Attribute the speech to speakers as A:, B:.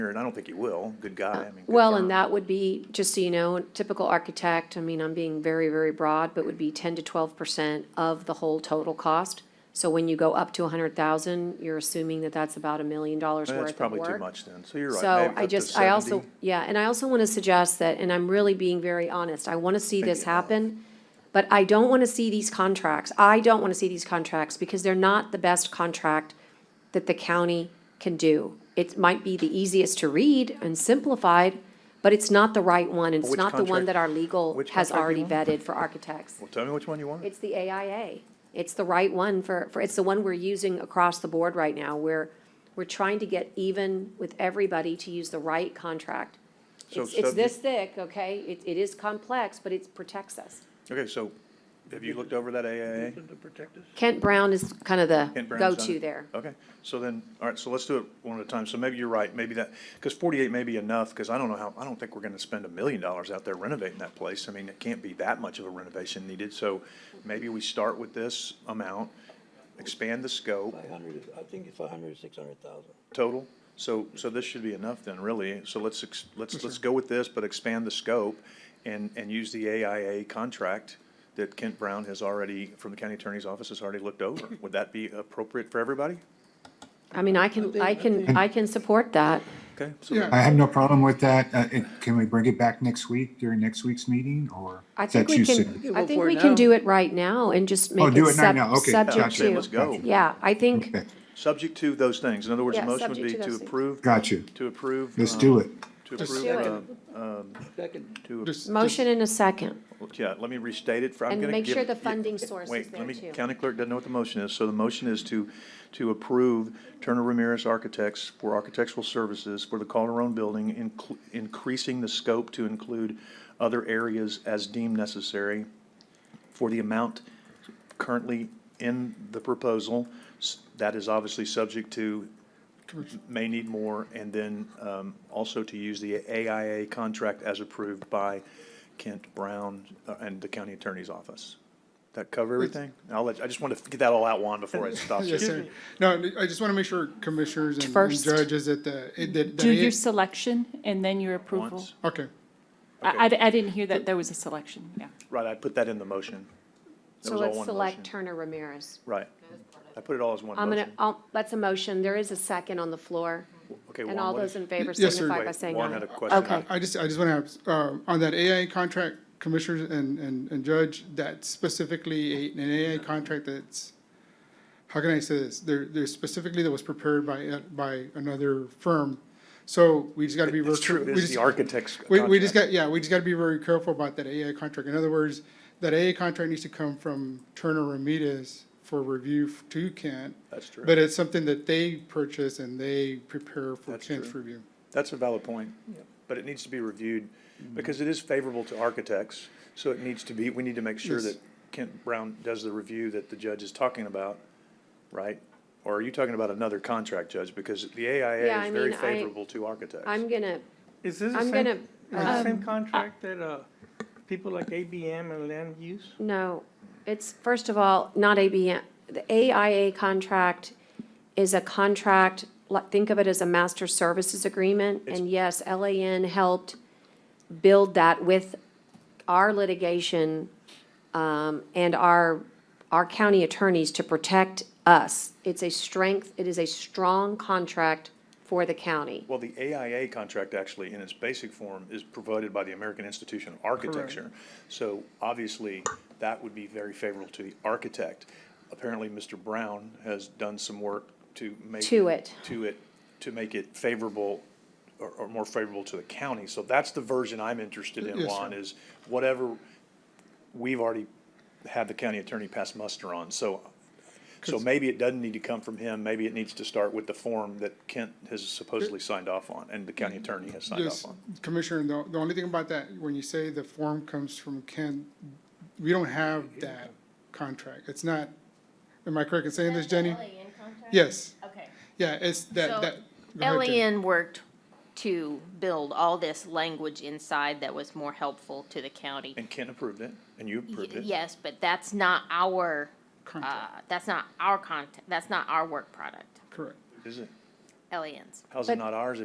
A: here, and I don't think he will, good guy, I mean. good
B: Well,
A: firm.
B: and that would be, just so you know, typical architect, I mean, I'm being very, very broad, but would be ten to twelve percent of the whole total cost. So when you go up to a hundred thousand, you're assuming that that's about a million dollars worth of work.
A: That's probably too much then, so you're right.
B: So
A: maybe
B: I
A: up to
B: just, I also,
A: 70.
B: yeah, and I also want to suggest that, and I'm really being very honest, I want to see this
A: Maybe not.
B: happen. But I don't want to see these contracts, I don't want to see these contracts because they're not the best contract that the county can do. It might be the easiest to read and simplified, but it's not the right one, and it's
A: Which
B: not the
A: contract-
B: one that our legal
A: which
B: has
A: contract
B: already
A: you want?
B: vetted for architects.
A: Well, tell me which one you want.
B: It's the AIA. It's the right one for, for, it's the one we're using across the board right now. We're, we're trying to get even with everybody to use the right contract.
A: So
B: It's, it's
A: subject-
B: this thick, okay? It, it is complex, but it protects us.
A: Okay, so have you looked over that AIA?
C: To protect us?
B: Kent Brown is kind of the
A: Kent Brown's done
B: go-to
A: it?
B: there.
A: Okay, so then, all right, so let's do it one at a time. So maybe you're right, maybe that, because forty-eight may be enough, because I don't know how, I don't think we're gonna spend a million dollars out there renovating that place. I mean, it can't be that much of a renovation needed, so maybe we start with this amount, expand the scope
C: Five hundred, I think it's five hundred, six hundred thousand.
A: total. So, so this should be enough then, really. So let's, ex- let's, let's go with this, but expand the scope and, and use the AIA contract that Kent Brown has already, from the county attorney's office, has already looked over. Would that be appropriate for everybody?
B: I mean, I can, I can, I can support that.
A: Okay, so then-
D: I have no problem with that. Uh, it- Can we bring it back next week during next week's meeting or?
B: I
D: is that
B: think we
D: too
B: can,
D: soon?
C: can
B: I
C: vote
B: think
C: for it
B: we can
C: now.
B: do it right now and just make
D: Oh, do
B: it
D: it right
B: sub-
D: now. Okay.
A: Yeah, I'd
B: subject
A: say let's
B: to.
A: go.
B: Yeah, I think,
D: Okay,
A: Subject to those things. In other words, the
B: Yeah,
A: motion would
B: subject
A: be
B: to
A: to
B: those things.
A: approve.
D: Got you.
A: To approve.
D: Let's
A: um,
D: do it.
A: To
E: Let's
A: approve,
B: do it.
A: um,
C: Second,
A: to,
E: Just-
B: motion in a second,
A: yeah, let me restate it for, I'm
B: and
A: gonna give.
B: make sure the
A: yeah,
B: funding source is
A: Wait,
B: there
A: let me,
B: too.
A: county clerk doesn't know what the motion is. So the motion is to, to approve Turner Ramirez Architects for architectural services for the Calderon Building, inclu- increasing the scope to include other areas as deemed necessary for the amount currently in the proposal. S- That is obviously subject to, may need more, and then um, also to use the AIA contract as approved by Kent Brown uh, and the county attorney's office. That cover everything? I'll let, I just want to get that all out, Juan, before I stop you.
E: Yes, sir. No, I just want to make sure commissioners and- and
F: First.
E: judges that the, it- that. that
F: Do
E: it-
F: your selection and then your approval.
A: Once.
E: Okay,
F: I, I- I didn't hear that there was a selection, yeah.
A: Right, I put that in the motion. That
B: So
A: was all
B: let's
A: one
B: select
A: motion.
B: Turner Ramirez.
A: Right. I put it all as one
B: I'm gonna,
A: motion.
B: I'll- that's a motion. There is a second on the floor.
A: Okay,
B: And
A: Juan,
B: all
A: what
B: those
A: did-
B: in favor
E: Y- yes, sir.
B: signify by
A: wait,
B: saying
A: Juan had a
B: aye.
A: question.
B: Okay.
E: I just, I just want to have, um, on that AI contract, commissioners and, and, and judge, that specifically a- an AI contract that's, how can I say this? There, there's specifically that was prepared by, uh, by another firm. So we just got to be.
A: It's
E: real-
A: true,
E: we
A: it is
E: just-
A: the architect's
E: We, we just
A: contract.
E: got, yeah, we just gotta be very careful about that AA contract. In other words, that AA contract needs to come from Turner Ramirez for review f- to Kent.
A: That's true.
E: But it's something that they purchase and they prepare for
A: That's
E: Kent's
A: true.
E: review.
A: That's a valid point, but it needs to be reviewed, because it is favorable to architects, so it needs to be, we need to make sure
E: Yes.
A: that Kent Brown does the review that the judge is talking about, right? Or are you talking about another contract, Judge? Because the
B: Yeah,
A: AIA
B: I
A: is very
B: mean, I-
A: favorable to architects.
B: I'm gonna,
G: Is this the
B: I'm
G: same,
B: gonna, um,
G: is this the same contract that, uh, people like ABM and land use?
B: no, it's, first of all, not ABM. The AIA contract is a contract, like, think of it as a master services agreement. And yes, LAN helped build that with our litigation um, and our, our county attorneys to protect us. It's a strength, it is a strong contract for the county.
A: Well, the AIA contract actually, in its basic form, is provided by the American Institution of Architecture. So obviously, that would be very favorable to the architect. Apparently, Mr. Brown has done some work to make.
B: To it.
A: To it, to make it favorable or, or more favorable to the county. So that's the version I'm interested in,
E: Yes,
A: Juan,
E: sir.
A: is whatever we've already had the county attorney pass muster on. So so maybe it doesn't need to come from him, maybe it needs to start with the form that Kent has supposedly signed off on, and the county attorney has signed off
E: Yes,
A: on.
E: Commissioner, the, the only thing about that, when you say the form comes from Kent, we don't have that contract. It's not, am I correct in saying this, Jenny? Yes,
H: Okay.
E: yeah, it's that,
H: So,
E: that. go ahead, Jenny.
H: LAN worked to build all this language inside that was more helpful to the county.
A: And Kent approved it, and you
H: Y-
A: approved it.
H: Yes, but that's not our, uh,
E: Contract.
H: that's not our content, that's not our work product,
E: Correct.
A: Is it,
H: LAN's.
A: how's it
B: But-
A: not ours